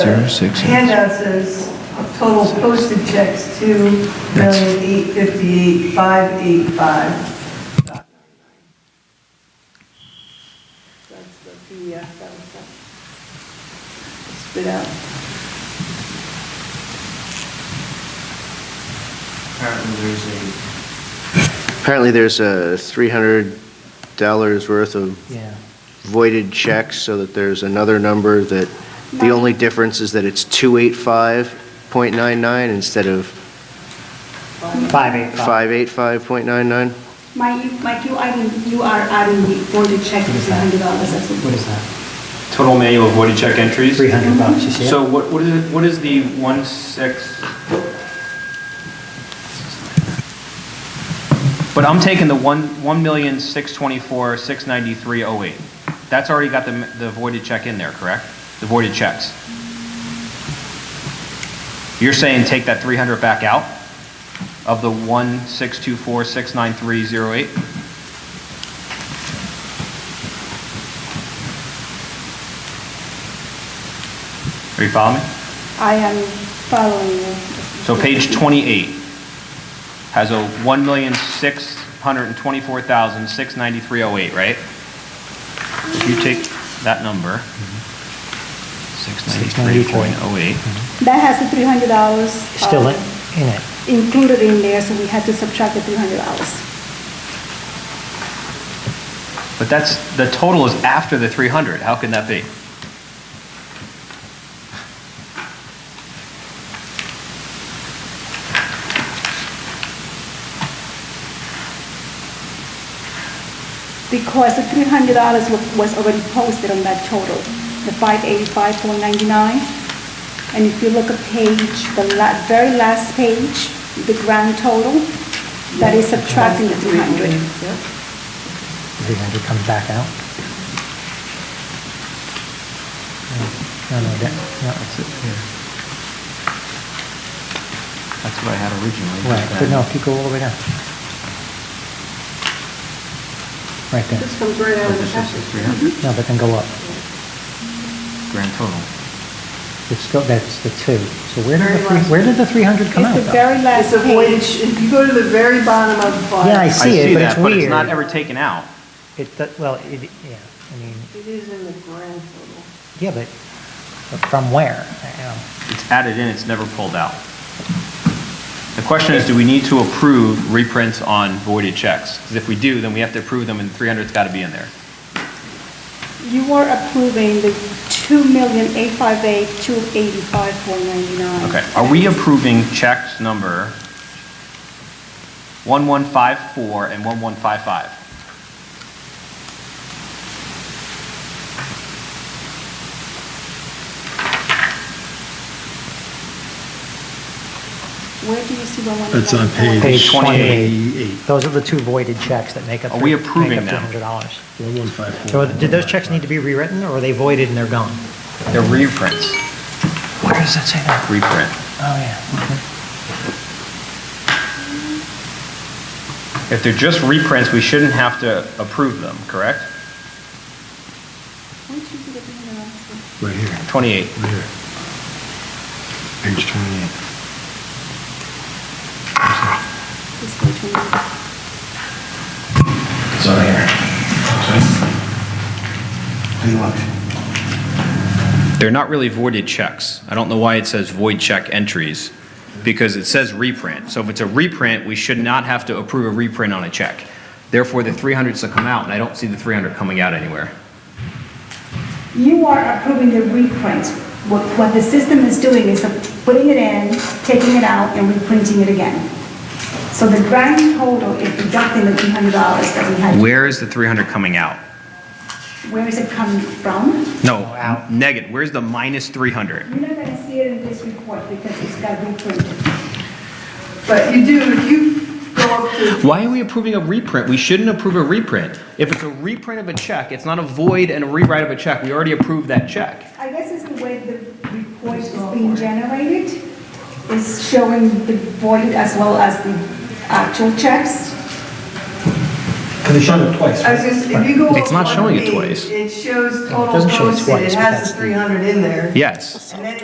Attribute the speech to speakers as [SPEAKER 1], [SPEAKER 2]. [SPEAKER 1] Zero six.
[SPEAKER 2] Handout says total postage checks, two million eight fifty-eight, five eight five. That's the PDF that was spit out.
[SPEAKER 3] Apparently there's a,
[SPEAKER 4] Apparently, there's a $300 worth of
[SPEAKER 3] yeah,
[SPEAKER 4] voided checks, so that there's another number that, the only difference is that it's 285.99 instead of
[SPEAKER 3] 585.
[SPEAKER 4] 585.99.
[SPEAKER 5] Mike, Mike, you are, you are adding the voided check to three hundred dollars, that's
[SPEAKER 3] What
[SPEAKER 5] what.
[SPEAKER 3] is that?
[SPEAKER 6] Total manual voided check entries.
[SPEAKER 3] 300 bucks, you see it?
[SPEAKER 6] So what, what is, it- what is the one six? But I'm taking the one, one million, six twenty-four, six ninety-three, oh eight. That's already got the, the voided check in there, correct? The voided checks. You're saying take that three hundred back out of the one, six two four, six nine three, zero eight? Are you following me?
[SPEAKER 5] I am following you.
[SPEAKER 6] So page 28 has a 1,624,693.08, right? You take that number, 693.08.
[SPEAKER 5] That has the three hundred dollars. uh,
[SPEAKER 3] Still in in it.
[SPEAKER 5] Included in there, so we had to subtract the three hundred dollars.
[SPEAKER 6] But that's, the total is after the 300. How can that be?
[SPEAKER 5] Because the three hundred dollars was already posted on that total, the five eighty-five, four ninety-nine. And if you look at page, the la, very last page, the grand total, that is subtracting the three hundred.
[SPEAKER 3] 300 comes back out. No, no, that, no, it's, yeah.
[SPEAKER 6] That's what I had originally.
[SPEAKER 3] right, but no, if you go all the way down. Right there.
[SPEAKER 2] This comes right out of
[SPEAKER 6] But
[SPEAKER 2] the
[SPEAKER 6] this is
[SPEAKER 2] packet.
[SPEAKER 6] the 300
[SPEAKER 3] No, but then go up.
[SPEAKER 6] grand total.
[SPEAKER 3] It's still, that's the two. So
[SPEAKER 2] Very
[SPEAKER 3] where did the, three-
[SPEAKER 2] last.
[SPEAKER 3] where did the 300 come out
[SPEAKER 5] It's the
[SPEAKER 3] though?
[SPEAKER 5] very
[SPEAKER 2] It's
[SPEAKER 5] last
[SPEAKER 2] a
[SPEAKER 5] page.
[SPEAKER 2] voided, sh- if you go to the very bottom of the file.
[SPEAKER 3] Yeah, I see it, but
[SPEAKER 6] that,
[SPEAKER 3] it's
[SPEAKER 6] But it's not
[SPEAKER 3] weird.
[SPEAKER 6] ever taken out.
[SPEAKER 3] It, do- well, it, yeah, I mean,
[SPEAKER 2] It is in the grand total.
[SPEAKER 3] yeah, but but from where? I- I don't-
[SPEAKER 6] It's added in, it's never pulled out. The question is, do we need to approve reprints on voided checks? Because if we do, then we have to approve them, and 300's got to be in there.
[SPEAKER 5] You are approving the two million eight five eight two eighty-five four ninety-nine.
[SPEAKER 6] Okay, are we approving checks number 1154 and 1155?
[SPEAKER 5] Where do you see the one?
[SPEAKER 1] That's on page.
[SPEAKER 3] Page
[SPEAKER 6] 28.
[SPEAKER 1] 28.
[SPEAKER 3] Those are the two voided checks that make up.
[SPEAKER 6] Are we
[SPEAKER 3] three- make
[SPEAKER 6] approving
[SPEAKER 3] up
[SPEAKER 6] them?
[SPEAKER 3] $300.
[SPEAKER 1] One one five four.
[SPEAKER 3] So did those checks need to be rewritten, or are they voided and they're gone?
[SPEAKER 6] They're reprints,
[SPEAKER 3] Where does that say that?
[SPEAKER 6] reprint.
[SPEAKER 3] Oh, yeah.
[SPEAKER 6] If they're just reprints, we shouldn't have to approve them, correct?
[SPEAKER 1] Right here,
[SPEAKER 6] 28.
[SPEAKER 1] right here. Page 28. It's on here. Hey, look.
[SPEAKER 6] They're not really voided checks. I don't know why it says void check entries, because it says reprint. So if it's a reprint, we should not have to approve a reprint on a check. Therefore, the 300s will come out, and I don't see the 300 coming out anywhere.
[SPEAKER 7] You are approving the reprints. What, what the system is doing is putting it in, taking it out, and reprinting it again. So the grand total is deducting the three hundred dollars that we had.
[SPEAKER 6] Where is the 300 coming out?
[SPEAKER 7] Where is it coming from?
[SPEAKER 6] No, out. negative. Where's the minus 300?
[SPEAKER 7] You're not gonna see it in this report because it's got reprinted.
[SPEAKER 2] But you do, if you go up to,
[SPEAKER 6] Why are we approving a reprint? We shouldn't approve a reprint. If it's a reprint of a check, it's not a void and a rewrite of a check. We already approved that check.
[SPEAKER 7] I guess it's the way the report is being generated, is showing the void as well as the actual checks.
[SPEAKER 8] Because they showed it twice,
[SPEAKER 2] I was
[SPEAKER 8] right?
[SPEAKER 2] just, if you go up.
[SPEAKER 6] It's not
[SPEAKER 2] one
[SPEAKER 6] showing it
[SPEAKER 2] page,
[SPEAKER 6] twice.
[SPEAKER 2] It shows
[SPEAKER 3] No, it
[SPEAKER 2] total
[SPEAKER 3] doesn't show it
[SPEAKER 2] posted,
[SPEAKER 3] twice,
[SPEAKER 2] it
[SPEAKER 3] but
[SPEAKER 2] has
[SPEAKER 3] that's
[SPEAKER 2] the
[SPEAKER 3] the-
[SPEAKER 2] 300 in there.
[SPEAKER 6] Yes.
[SPEAKER 2] And then